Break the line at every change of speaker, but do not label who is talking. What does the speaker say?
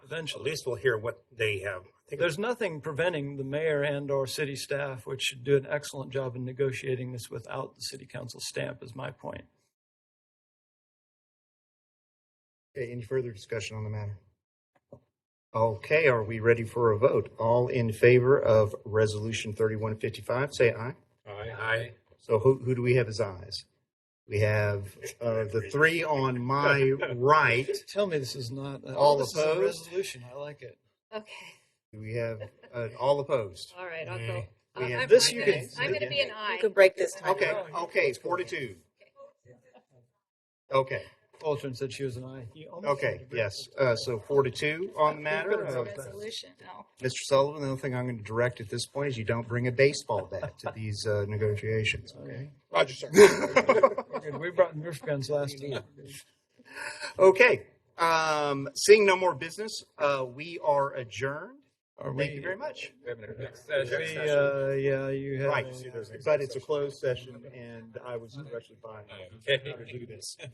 eventually.
At least we'll hear what they have. I think
There's nothing preventing the mayor and or city staff, which should do an excellent job in negotiating this without the city council stamp is my point.
Okay, any further discussion on the matter? Okay, are we ready for a vote? All in favor of Resolution 3155, say aye.
Aye.
So who, who do we have as ayes? We have uh, the three on my right.
Tell me this is not, uh,
All
this is a
opposed?
resolution. I like it.
Okay,
We have uh, all opposed.
all right, I'll go.
We
I'm-
have-
I'm
This
fine
you
with
can-
it. I'm going to be an
You
aye.
could break this time.
Okay, okay, forty-two. Okay,
Fulton said she was an aye. You almost
okay,
had to-
yes. Uh, So forty-two on the matter. Uh,
Resolution, no.
Mr. Sullivan, the only thing I'm going to direct at this point is you don't bring a baseball bat to these uh, negotiations, okay?
Roger, sir.
We're good. We brought Nerf guns last time.
Okay, um, seeing no more business, uh, we are adjourned.
Are
Thank you
we,
very much.
Next
we, uh, yeah, you had.
Right,
a- Mm-hmm.
but it's a closed session and I was directly by.
Okay.